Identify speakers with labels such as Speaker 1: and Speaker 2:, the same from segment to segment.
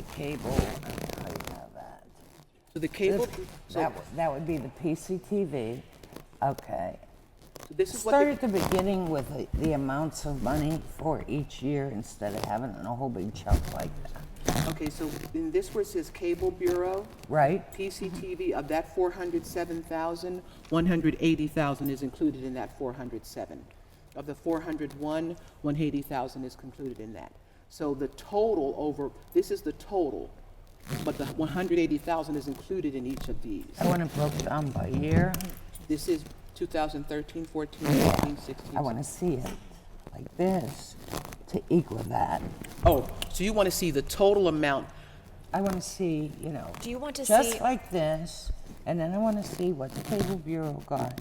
Speaker 1: cable, and how you have that.
Speaker 2: So the cable, so
Speaker 1: That, would- that would be the PCTV, okay.
Speaker 2: so this is
Speaker 1: Start
Speaker 2: what,
Speaker 1: at the beginning with the, the amounts of money for each year instead of having a whole big chunk like that,
Speaker 2: the- okay, so in this where it says Cable Bureau,
Speaker 1: right?
Speaker 2: PCTV, of that 407,000, 180,000 is included in that 407. Of the 401, 180,000 is included in that. So the total over, this is the total, but the 180,000 is included in each of these.
Speaker 1: I want it broke down by year.
Speaker 2: This is 2013, 14, 15, 16.
Speaker 1: I want to see it like this to equal that.
Speaker 2: Oh, so you want to see the total amount.
Speaker 1: I want to see, you know.
Speaker 3: Do you want to
Speaker 1: just
Speaker 3: see-
Speaker 1: like this, and then I want to see what the cable bureau got,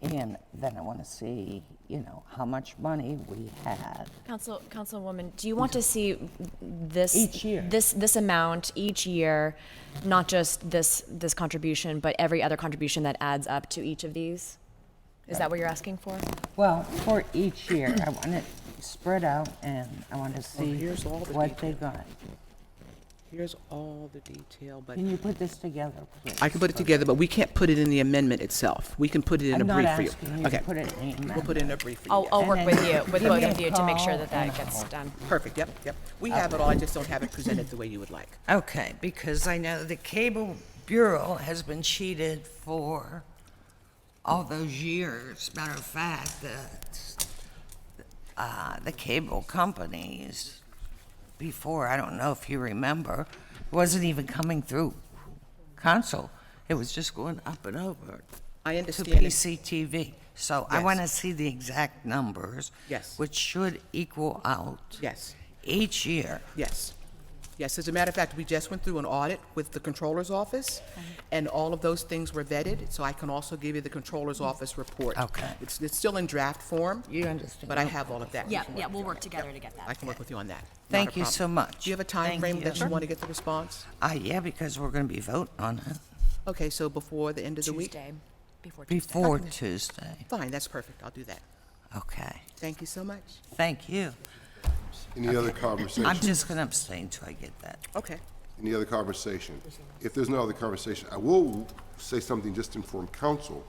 Speaker 1: and then I want to see, you know, how much money we had.
Speaker 3: Council, Councilwoman, do you want to see this?
Speaker 1: Each year.
Speaker 3: This, this amount each year, not just this, this contribution, but every other contribution that adds up to each of these? Is that what you're asking for?
Speaker 1: Well, for each year, I want it spread out, and I want to see
Speaker 2: here's all the
Speaker 1: what they got.
Speaker 2: Here's all the detail, but.
Speaker 1: Can you put this together, please?
Speaker 2: I can put it together, but we can't put it in the amendment itself. We can put it in a
Speaker 1: I'm
Speaker 2: brief
Speaker 1: not
Speaker 2: for you.
Speaker 1: asking you to
Speaker 2: Okay,
Speaker 1: put it in the
Speaker 2: We'll put it in a brief for you.
Speaker 3: I'll,
Speaker 2: yeah.
Speaker 3: I'll work
Speaker 1: And
Speaker 3: with
Speaker 1: then
Speaker 3: you, with
Speaker 1: give
Speaker 3: both
Speaker 1: me
Speaker 3: of
Speaker 1: a
Speaker 3: you to make sure
Speaker 1: call
Speaker 3: that that
Speaker 1: and
Speaker 3: gets
Speaker 1: I'll-
Speaker 3: done.
Speaker 2: Perfect, yep, yep. We have it all, I just don't have it presented the way you would like.
Speaker 4: Okay, because I know the Cable Bureau has been cheated for all those years. Matter of fact, the, uh, the cable companies before, I don't know if you remember, wasn't even coming through console. It was just going up and over
Speaker 2: I
Speaker 4: to
Speaker 2: understand, it.
Speaker 4: PCTV. So I
Speaker 2: Yes.
Speaker 4: want to see the exact numbers.
Speaker 2: Yes.
Speaker 4: Which should equal out.
Speaker 2: Yes.
Speaker 4: Each year.
Speaker 2: yes. Yes, as a matter of fact, we just went through an audit with the Controller's Office, and all of those things were vetted, so I can also give you the Controller's Office report.
Speaker 4: Okay.
Speaker 2: It's, it's still in draft form.
Speaker 4: You understand.
Speaker 2: But I have all of that. We
Speaker 3: Yeah,
Speaker 2: can work
Speaker 3: yeah, we'll
Speaker 2: together.
Speaker 3: work together to get
Speaker 2: I
Speaker 3: that.
Speaker 2: can work with you on that. Not a
Speaker 4: Thank you
Speaker 2: problem.
Speaker 4: so much.
Speaker 2: Do you have a time
Speaker 4: Thank
Speaker 2: frame
Speaker 4: you.
Speaker 2: that you want to get the response?
Speaker 4: Uh, yeah, because we're going to be voting on it
Speaker 2: Okay, so before the end of the week?
Speaker 3: Tuesday, before Tuesday.
Speaker 4: before Tuesday.
Speaker 2: Fine, that's perfect. I'll do that.
Speaker 4: Okay,
Speaker 2: Thank you so much.
Speaker 4: thank you.
Speaker 5: Any other
Speaker 4: I'm
Speaker 5: conversation?
Speaker 4: just going to abstain till I get that.
Speaker 2: Okay.
Speaker 5: Any other conversation? If there's no other conversation, I will say something just to inform council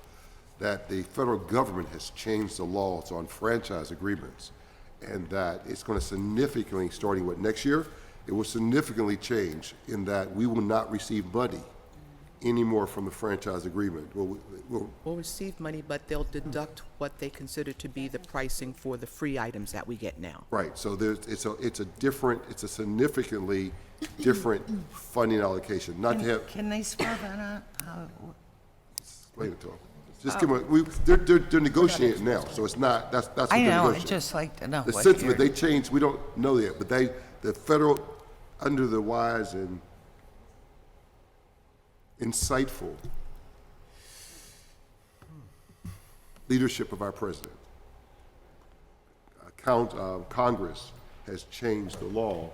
Speaker 5: that the federal government has changed the laws on franchise agreements and that it's going to significantly, starting with next year, it will significantly change in that we will not receive money anymore from the franchise agreement. Well, we- we'll
Speaker 2: We'll receive money, but they'll deduct what they consider to be the pricing for the free items that we get now.
Speaker 5: Right, so there's, it's a, it's a different, it's a significantly different funding allocation, not to have,
Speaker 4: Can they spell that out? How it wo-
Speaker 5: Explain it to them. Just give them, we, they're, they're, they're negotiating it now, so it's not, that's, that's what
Speaker 4: I
Speaker 5: they're
Speaker 4: know, I'd
Speaker 5: negotiating.
Speaker 4: just like to know
Speaker 5: The
Speaker 4: what
Speaker 5: sentiment,
Speaker 4: your,
Speaker 5: they changed, we don't know yet, but they, the federal, under the wise and insightful leadership of our president, uh, count, uh, Congress has changed the law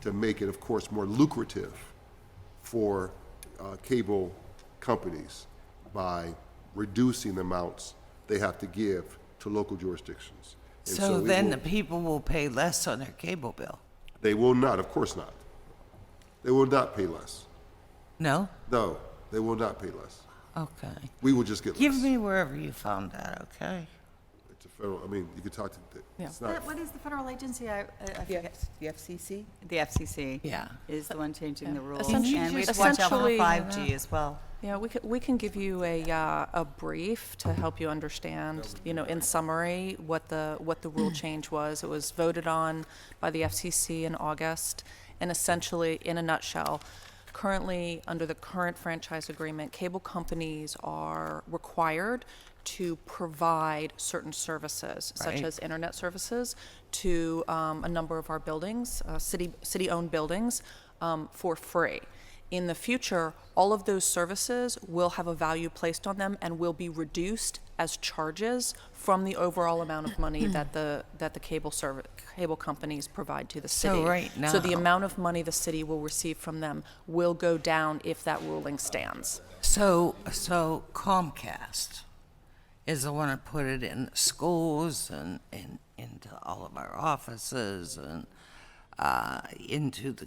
Speaker 5: to make it, of course, more lucrative for uh, cable companies by reducing the amounts they have to give to local jurisdictions. And
Speaker 4: so
Speaker 5: it
Speaker 4: then
Speaker 5: will-
Speaker 4: the people will pay less on their cable bill.
Speaker 5: They will not, of course not. They will not pay less.
Speaker 4: No?
Speaker 5: No, they will not pay less.
Speaker 4: Okay.
Speaker 5: We will just get less.
Speaker 4: Give me wherever you found that, okay?
Speaker 5: It's a federal, I mean, you could talk to, it's not,
Speaker 6: What what is the federal agency? I, I- I forget.
Speaker 2: The FCC?
Speaker 6: The FCC.
Speaker 4: Yeah.
Speaker 6: Is the one changing the rules.
Speaker 7: Can you
Speaker 6: And we have
Speaker 7: just-
Speaker 6: to watch out for
Speaker 7: essentially-
Speaker 6: 5G as well.
Speaker 7: Yeah, we can, we can give you a, uh, a brief to help you understand, you know, in summary, what the, what the rule change was. It was voted on by the FCC in August, and essentially, in a nutshell, currently, under the current franchise agreement, cable companies are required to provide certain services, such
Speaker 4: Right.
Speaker 7: as internet services, to um, a number of our buildings, uh, city, city-owned buildings, um, for free. In the future, all of those services will have a value placed on them and will be reduced as charges from the overall amount of money
Speaker 4: Hmm.
Speaker 7: that the, that the cable service, cable companies provide to the
Speaker 4: So
Speaker 7: city.
Speaker 4: right
Speaker 7: So the
Speaker 4: now-
Speaker 7: amount of money the city will receive from them will go down if that ruling stands.
Speaker 4: So, so Comcast is the one that put it in schools and, and into all of our offices and uh, into the